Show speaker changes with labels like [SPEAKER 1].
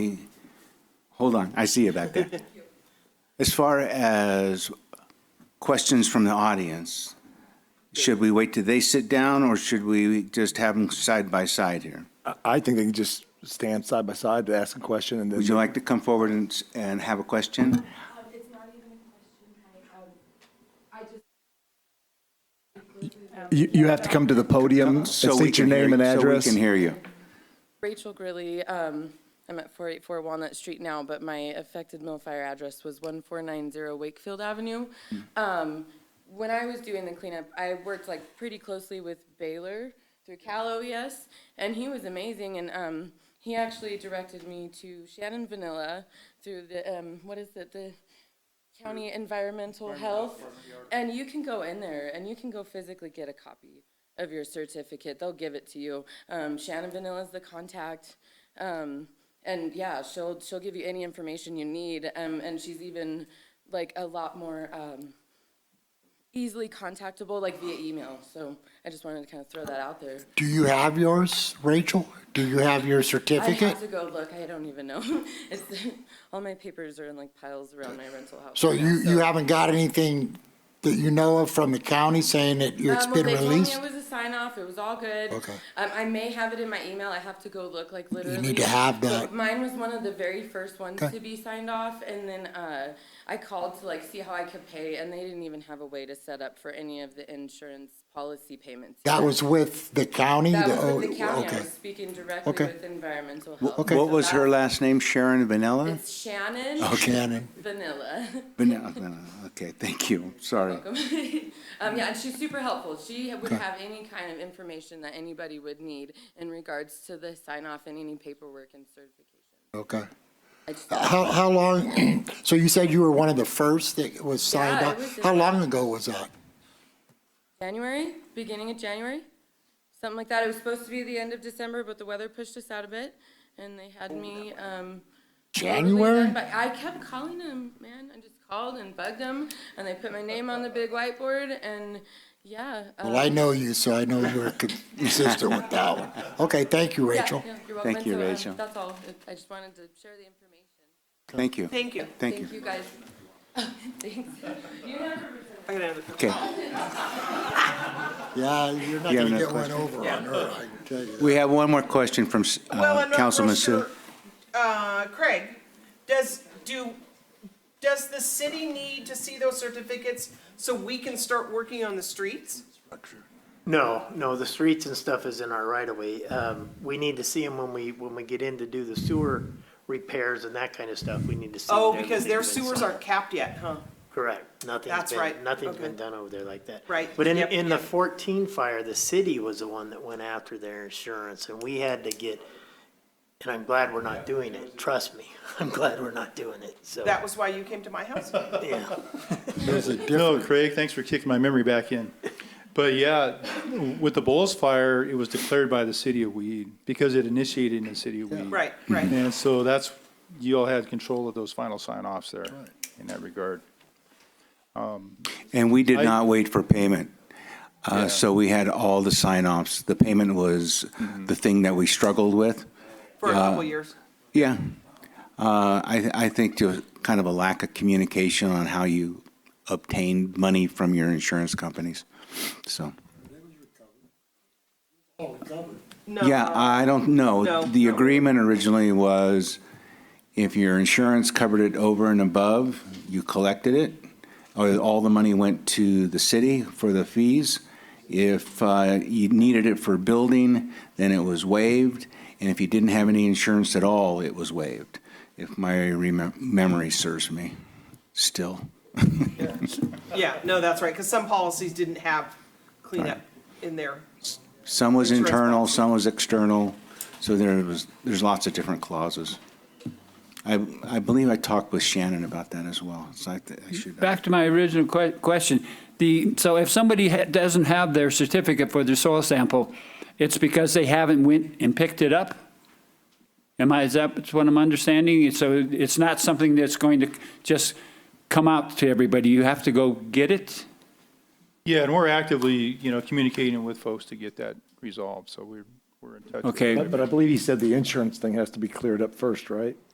[SPEAKER 1] Hold on, I see you back there. As far as questions from the audience, should we wait till they sit down, or should we just have them side by side here?
[SPEAKER 2] I- I think they can just stand side by side to ask a question and then.
[SPEAKER 1] Would you like to come forward and, s- and have a question?
[SPEAKER 3] Um, it's not even a question, I, um, I just.
[SPEAKER 2] You, you have to come to the podium,
[SPEAKER 1] So we
[SPEAKER 2] state your
[SPEAKER 1] can hear
[SPEAKER 2] name and
[SPEAKER 1] you-
[SPEAKER 2] address.
[SPEAKER 1] So we can hear you.
[SPEAKER 4] Rachel Grilly, um, I'm at 484 Walnut Street now, but my affected mill fire address was 1490 Wakefield Avenue. Um, When I was doing the cleanup, I worked like pretty closely with Baylor through Cal OES, and he was amazing, and um, he actually directed me to Shannon Vanilla through the, um, what is it, the County Environmental Health. And you can go in there and you can go physically get a copy of your certificate. They'll give it to you. Um, Shannon Vanilla's the contact. Um, and yeah, she'll, she'll give you any information you need. Um, and she's even like a lot more, um, easily contactable, like via email. So I just wanted to kind of throw that out there.
[SPEAKER 5] Do you have yours, Rachel? Do you have your
[SPEAKER 4] I
[SPEAKER 5] certificate?
[SPEAKER 4] have to go look. I don't even know. It's, all my papers are in like piles around my rental house.
[SPEAKER 5] So
[SPEAKER 4] right now,
[SPEAKER 5] you, you haven't got anything that you know of from the county saying that it's
[SPEAKER 4] Um, well,
[SPEAKER 5] been
[SPEAKER 4] they
[SPEAKER 5] released?
[SPEAKER 4] told me it was a sign off. It was all good.
[SPEAKER 5] Okay.
[SPEAKER 4] Um, I may have it in my email. I have to go look. Like literally,
[SPEAKER 5] to have
[SPEAKER 4] But
[SPEAKER 5] that.
[SPEAKER 4] Mine was one of the very first ones
[SPEAKER 5] Okay.
[SPEAKER 4] to be signed off, and then uh, I called to like see how I could pay, and they didn't even have a way to set up for any of the insurance policy payments.
[SPEAKER 5] That was with the county?
[SPEAKER 4] That
[SPEAKER 5] The-
[SPEAKER 4] was with the
[SPEAKER 5] oh,
[SPEAKER 4] county. I
[SPEAKER 5] okay.
[SPEAKER 4] was speaking directly
[SPEAKER 5] Okay.
[SPEAKER 4] with environmental health.
[SPEAKER 5] okay. Oh,
[SPEAKER 1] What
[SPEAKER 4] So
[SPEAKER 1] was her
[SPEAKER 4] that-
[SPEAKER 1] last name? Sharon Vanilla?
[SPEAKER 4] It's Shannon
[SPEAKER 5] Shannon.
[SPEAKER 4] Vanilla.
[SPEAKER 1] Vanilla, Vanilla. okay, thank you, sorry.
[SPEAKER 4] um, yeah, and she's super helpful. She would have any kind of information that anybody would need in regards to the sign off and any paperwork and certification.
[SPEAKER 5] Okay.
[SPEAKER 4] I just,
[SPEAKER 5] How, how long, so you said you were one of the first that was signed
[SPEAKER 4] Yeah,
[SPEAKER 5] up?
[SPEAKER 4] it was in-
[SPEAKER 5] How long ago was that?
[SPEAKER 4] January, beginning of January, something like that. It was supposed to be the end of December, but the weather pushed us out a bit, and they had me. Um, probably
[SPEAKER 5] January?
[SPEAKER 4] done, But I kept calling them, man. I just called and bugged them, and they put my name on the big whiteboard, and yeah.
[SPEAKER 5] Well, I
[SPEAKER 4] um,
[SPEAKER 5] know you, so I know you're consistent with that one. Okay, thank you,
[SPEAKER 4] yeah,
[SPEAKER 5] Rachel.
[SPEAKER 4] yeah, you're welcome.
[SPEAKER 1] Thank
[SPEAKER 4] And
[SPEAKER 1] you,
[SPEAKER 4] so, um,
[SPEAKER 1] Rachel.
[SPEAKER 4] That's all. I just wanted to share the information.
[SPEAKER 1] Thank you. Thank you. Thank you.
[SPEAKER 4] Thank you, guys. Thanks. You never
[SPEAKER 1] Okay,
[SPEAKER 5] Yeah, you're not
[SPEAKER 1] You have
[SPEAKER 5] gonna
[SPEAKER 1] no
[SPEAKER 5] get one
[SPEAKER 1] question?
[SPEAKER 5] over on her, I can tell you.
[SPEAKER 1] we have one more question from s- uh,
[SPEAKER 6] Well, I'm not
[SPEAKER 1] Councilman
[SPEAKER 6] real
[SPEAKER 1] Sue.
[SPEAKER 6] sure. Uh, Craig, does, do, does the city need to see those certificates so we can start working on the streets?
[SPEAKER 7] No, no, the streets and stuff is in our right of way. Um, we need to see them when we, when we get in to do the sewer repairs and that kind of stuff. We need to see.
[SPEAKER 6] Oh,
[SPEAKER 7] that
[SPEAKER 6] because their
[SPEAKER 7] everything's been
[SPEAKER 6] sewers
[SPEAKER 7] done.
[SPEAKER 6] aren't capped yet, huh?
[SPEAKER 7] Correct. Nothing's
[SPEAKER 6] That's right.
[SPEAKER 7] been, nothing's
[SPEAKER 6] Okay.
[SPEAKER 7] been done over there like that.
[SPEAKER 6] Right.
[SPEAKER 7] But in,
[SPEAKER 6] Yep.
[SPEAKER 7] in the fourteen fire, the city was the one that went after their insurance and we had to get, and I'm glad we're not doing it. Trust me. I'm glad we're not doing it. So,
[SPEAKER 6] That was why you came to my house?
[SPEAKER 7] yeah.
[SPEAKER 5] There's a
[SPEAKER 8] No, Craig, thanks for kicking my memory back in. But yeah, with the Bulls fire, it was declared by the city of Weed because it initiated in the city of Weed.
[SPEAKER 6] Right, right.
[SPEAKER 8] And so that's, you all had control of those final sign-offs there in that regard.
[SPEAKER 1] And we did
[SPEAKER 8] I-
[SPEAKER 1] not wait for payment. Uh,
[SPEAKER 8] Yeah.
[SPEAKER 1] So we had all the sign-offs. The payment was
[SPEAKER 8] Mm-hmm.
[SPEAKER 1] the thing that we struggled with.
[SPEAKER 6] For a couple years.
[SPEAKER 1] Yeah. Uh, I, I think to kind of a lack of communication on how you obtain money from your insurance companies. So,
[SPEAKER 6] No.
[SPEAKER 1] yeah, I don't know.
[SPEAKER 6] No.
[SPEAKER 1] The agreement originally was if your insurance covered it over and above, you collected it, or all the money went to the city for the fees. If uh, you needed it for building, then it was waived, and if you didn't have any insurance at all, it was waived, if my remem- memory serves me still.
[SPEAKER 6] Yeah, no, that's right, because some policies didn't have cleanup in there.
[SPEAKER 1] Some was
[SPEAKER 6] Insurance
[SPEAKER 1] internal, some was external, so there was, there's lots of different clauses. I, I believe I talked with Shannon about that as well, so I th- I should.
[SPEAKER 9] Back to my original que- question, the, so if somebody ha- doesn't have their certificate for their soil sample, it's because they haven't went and picked it up? Am I, is that what I'm understanding? So it's not something that's going to just come out to everybody, you have to go get it?
[SPEAKER 8] Yeah, and we're actively, you know, communicating with folks to get that resolved, so we're, we're in touch. with
[SPEAKER 9] Okay.
[SPEAKER 8] them.
[SPEAKER 2] But but I believe he said the insurance thing has to be cleared up first, right?